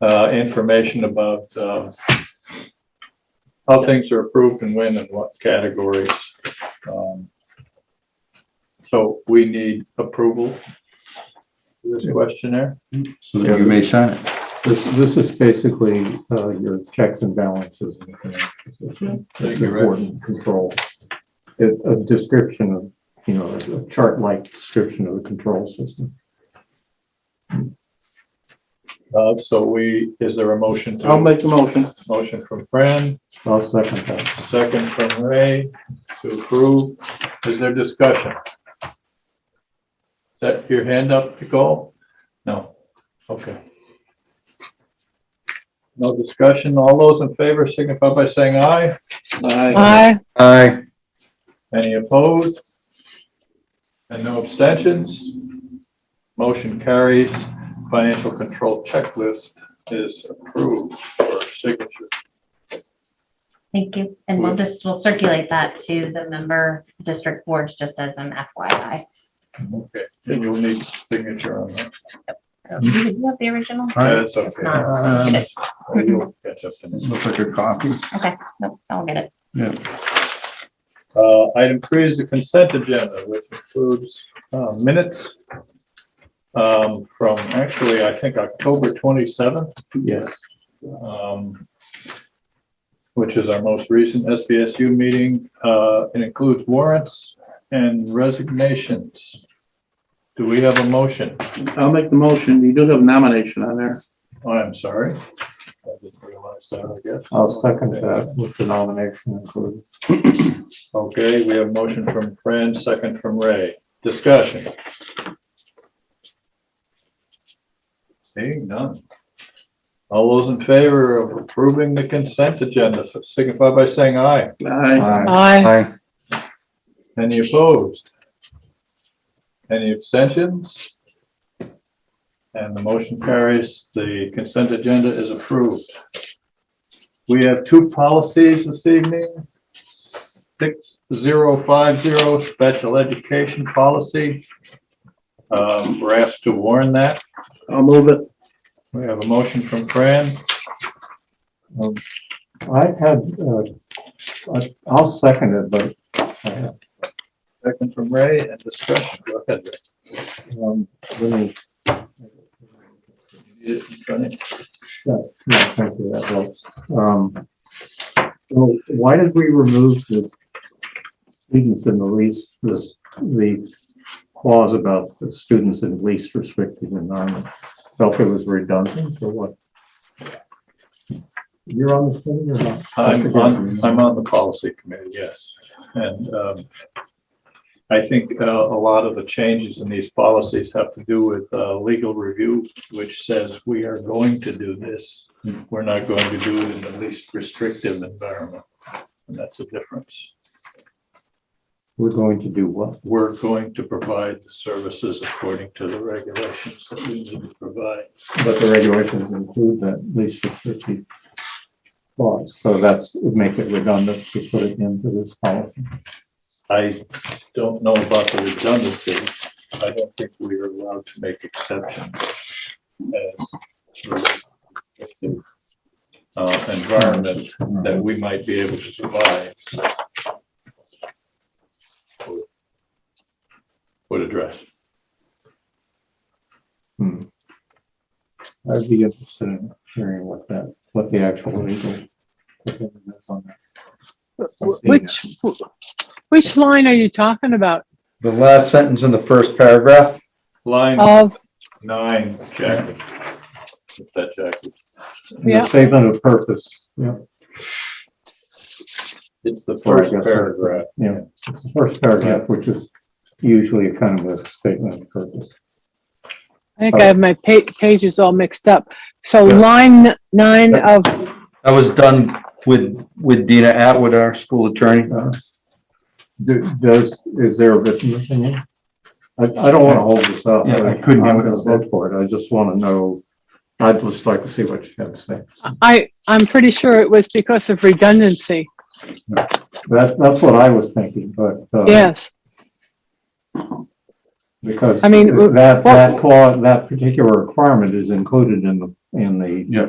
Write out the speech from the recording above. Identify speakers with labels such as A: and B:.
A: uh, information about, uh, how things are approved and when and what categories. Um, So we need approval for this questionnaire.
B: so that you may sign it.
C: This, this is basically, uh, your checks and balances. and everything.
A: Thank
C: It's
A: you, Rick.
C: important control. It, a description of, you know, a chart-like description of the control system.
A: Uh, so we, is there a motion? to-
D: I'll make the motion.
A: Motion from Fran,
C: I'll second that.
A: second from Ray to approve. Is there discussion? Is that your hand up, Nicole? No, okay. No discussion. All those in favor signify by saying aye.
E: Aye.
B: Aye.
A: Any opposed? And no abstentions? Motion carries. Financial control checklist is approved for signature.
F: Thank you. And we'll just, we'll circulate that to the member district boards just as an FYI.
A: Okay, and you'll need signature on that.
F: Do you have the original?
A: That's okay.
B: Um,
A: You'll catch up in a minute.
B: Looks like a copy.
F: Nope, I'll get it.
A: Uh, item three is the consent agenda, which includes, uh, minutes. Um, from actually, I think October twenty-seventh.
C: Yes.
A: um, which is our most recent SBSU meeting. Uh, It includes warrants and resignations. Do we have a motion?
D: I'll make the motion. You do have nomination on there.
A: Oh, I'm sorry. I didn't realize that, I guess.
C: I'll second that with the nomination included.
A: Okay, we have motion from Fran, second from Ray. Discussion. Seeing none. All those in favor of approving the consent agenda signify by saying aye.
D: Aye.
E: Aye.
B: Aye.
A: Any opposed? Any abstentions? And the motion carries. The consent agenda is approved. We have two policies this evening. Six zero five zero, special education policy. Um, We're asked to warn that.
D: I'll move it.
A: We have a motion from Fran.
C: Um, I had, uh, I- I'll second it, but uh, I have
A: Second from Ray and discussion. Go ahead. Ray.
C: Um, let me,
A: You need it in front of you.
C: no, thank you, that helps. Um, so why did we remove the students in the least, this, the clause about the students in least restricted environment? Felt it was redundant or what? You're on the thing or not?
A: I'm on, I'm on the policy committee, yes. And um, I think uh, a lot of the changes in these policies have to do with uh, legal review, which says we are going to do this. We're not going to do it in the least restrictive environment. And that's the difference.
C: We're going to do what?
A: We're going to provide the services according to the regulations that we need to provide.
C: But the regulations include that least restrictive clause, so that's, would make it redundant to put it into this policy.
A: I don't know about the redundancy. I don't think we are allowed to make exceptions as uh, environment that we might be able to provide. Would address.
C: Hmm. I'd be interested in hearing what that, what the actual legal. opinion is on that.
E: Wh- Which, which line are you talking about?
B: The last sentence in the first paragraph,
A: Line
E: Of,
A: nine, Jackie. Is that Jackie?
E: Yeah.
C: The statement of purpose, yeah,
A: It's the
C: Sorry,
A: first
C: yes.
A: paragraph.
C: yeah, it's the first paragraph, which is usually a kind of a statement of purpose.
E: I think I have my pa- pages all mixed up. So
C: Yeah.
E: line nine of,
B: that was done with, with Dina Atwood, our school attorney.
C: Uh, do- Does, is there a written opinion? I, I don't want to hold this up.
B: Yeah, I couldn't hear
C: I'm
B: what
C: going
B: it
C: to
B: said.
C: vote for it, I just want to know, I'd just like to see what you have to say.
E: I, I'm pretty sure it was because of redundancy.
C: That, that's what I was thinking, but. uh,
E: Yes,
C: Because
E: I mean,
C: that,
E: well-
C: that clause, that particular requirement is included in the, in the
B: Yeah.